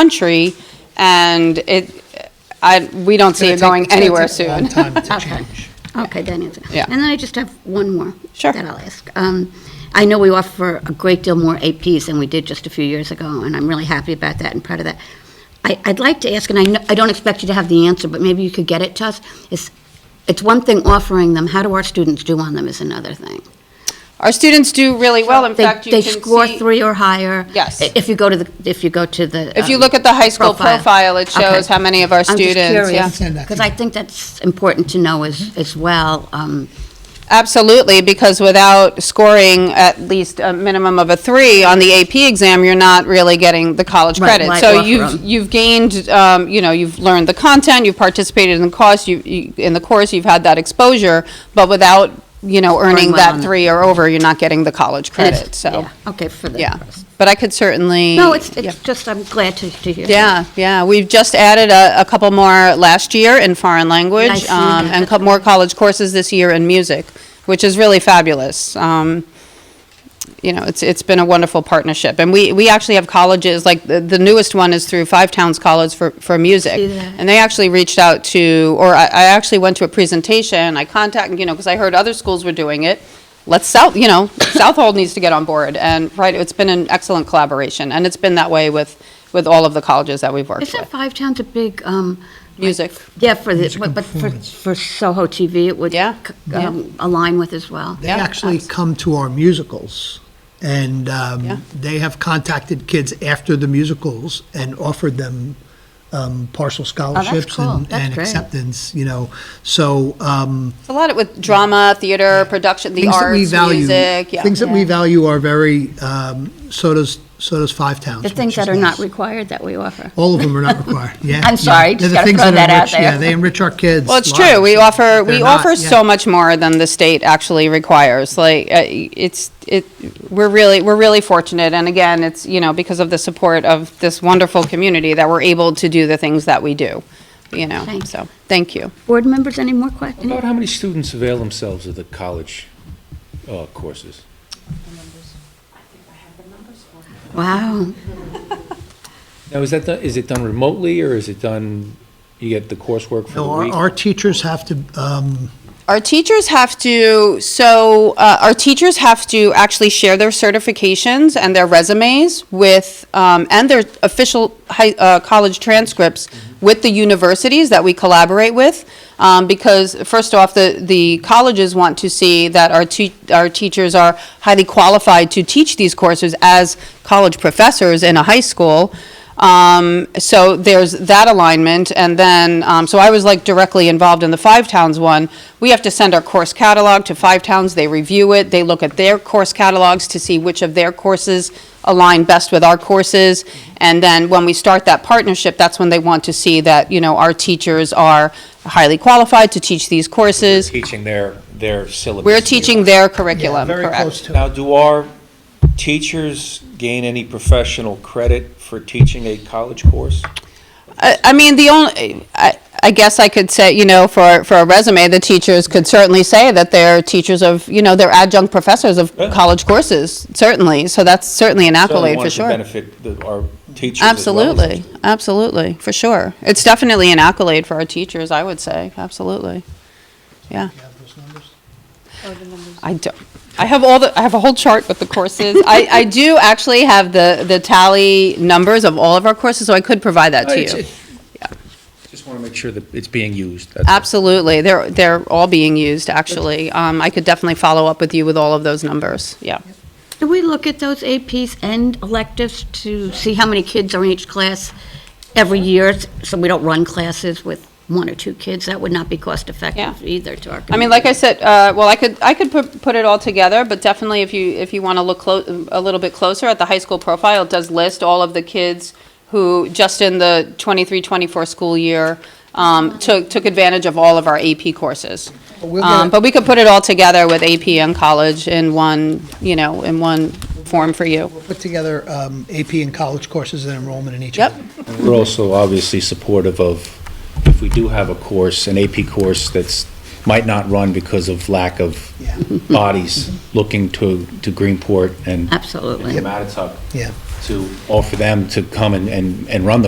country, and it, I, we don't see it going anywhere soon. Okay, that answers. it. Yeah. And then I just have one more. Sure. That I'll ask. Um, I know we offer a great deal more APs than we did just a few years ago, and I'm really happy about that and proud of that. I, I'd like to ask, and I, kno- I don't expect you to have the answer, but maybe you could get it to us, is, it's one thing offering them, how do our students do on them is another thing. Our students do really well, in They- fact, you They can score see- three or higher. Yes. i- If you go to the, if you go to the. If you um, look at the high school profile, it shows Okay. how many of our students, I'm yeah. just curious, because I think that's important to know as, as well. um, Absolutely, because without scoring at least a minimum of a three on the AP exam, you're not really getting the college Right, credit. why So offer 'em? you've, you've gained, um, you know, you've learned the content, you've participated in the course, you, you- in the course, you've had that exposure, but without, you know, earning well on that it. three or over, you're not getting the college and it's- credit, so, yeah, Okay, for the. yeah. But I could certainly. No, it's, yeah. it's just, I'm glad to, to hear. that. Yeah, yeah, we've just added a, a couple more last year in foreign I language, see um, that. and co- more college courses this year in music, which is really fabulous. Um, you know, it's, it's been a wonderful partnership, and we, we actually have colleges, like, the, the newest one is through Five Towns College for, for music. See that. And they actually reached out to, or I, I actually went to a presentation, I contacted, you know, because I heard other schools were doing it. Let's South, you know, Southold needs to get on board, and, right, it's been an excellent collaboration, and it's been that way with, with all of the colleges that we've worked Isn't with. Five Towns a big, um, Music, yeah, for the, but- but for, for Soho TV, it would. Yeah, c- yeah. um, Align with as well. They actually come to our musicals, and um, Yeah. they have contacted kids after the musicals and offered them um, partial scholarships cool. and That's and great. acceptance, you know, so. um, It's a lot of with drama, theater, production, the things that we arts, value- music, yeah. Things that we value are very, um, so does, so does Five Towns. The things which is that are not nice. required that we offer. All of them are not required, yeah. I'm yeah. sorry, They're just the gotta things throw that enrich- out there. Yeah, they enrich our kids. Well, it's lives, true. We but offer, we they're not, offer yeah. so much more than the state actually requires. Like, uh, it's, it, we're really, we're really fortunate. And again, it's, you know, because of the support of this wonderful community that we're able to do the things that we do, you know, Thank you. so, thank you. Board members, any more questions? About how many students avail themselves of the college uh, courses? Wow. Now, is that, done- is it done remotely, or is it done, you get the coursework for No, the our, week? our teachers have to, um, Our teachers have to, so uh, our teachers have to actually share their certifications and their resumes with, um, and their official high, uh, college transcripts with the universities that we collaborate with. Um, because first off, the, the colleges want to see that our te- our teachers are highly qualified to teach these courses as college professors in a high school. Um, so there's that alignment, and then, um, so I was like directly involved in the Five Towns one. We have to send our course catalog to Five Towns, they review it, they look at their course catalogs to see which of their courses align best with our courses. And then when we start that partnership, that's when they want to see that, you know, our teachers are highly qualified to teach these courses. teaching their, their syllabus. We're teaching their curriculum, very close correct? to. Now, do our teachers gain any professional credit for teaching a college course? I, I mean, the only, I, I guess I could say, you know, for, for a resume, the teachers could certainly say that they're teachers of, you know, they're adjunct professors of Yeah. college courses, certainly. So that's certainly an accolade for So we sure. want to benefit the- our teachers as well as the Absolutely, absolutely, for sure. It's definitely an accolade for our teachers, I would say, absolutely. Yeah. I do. I have all the, I have a whole chart with the courses. I, I do actually have the, the tally numbers of all of our courses, so I could provide that to It's- you. it- Just want to make sure that it's being used. Absolutely. They're, they're all being used, actually. Um, I could definitely follow up with you with all of those numbers. Yeah. Do we look at those APs and electives to see how many kids are in each class every year? So we don't run classes with one or two kids? That would not be cost effective Yeah. either to our community. I mean, like I said, uh, well, I could, I could put, put it all together, but definitely if you, if you want to look clo- a little bit closer at the high school profile, it does list all of the kids who, just in the 23, 24 school year, um, took, took advantage of all of our AP courses. we'll get Um, it. but we could put it all together with AP and college in one, you know, in one form for you. we'll put together um, AP and college courses and enrollment in each Yep. of them. And We're also obviously supportive of, if we do have a course, an AP course that's, might not run because of lack of Yeah. bodies looking to, to Greenport and Absolutely. Matituck, Yeah. to offer them to come and, and, and run the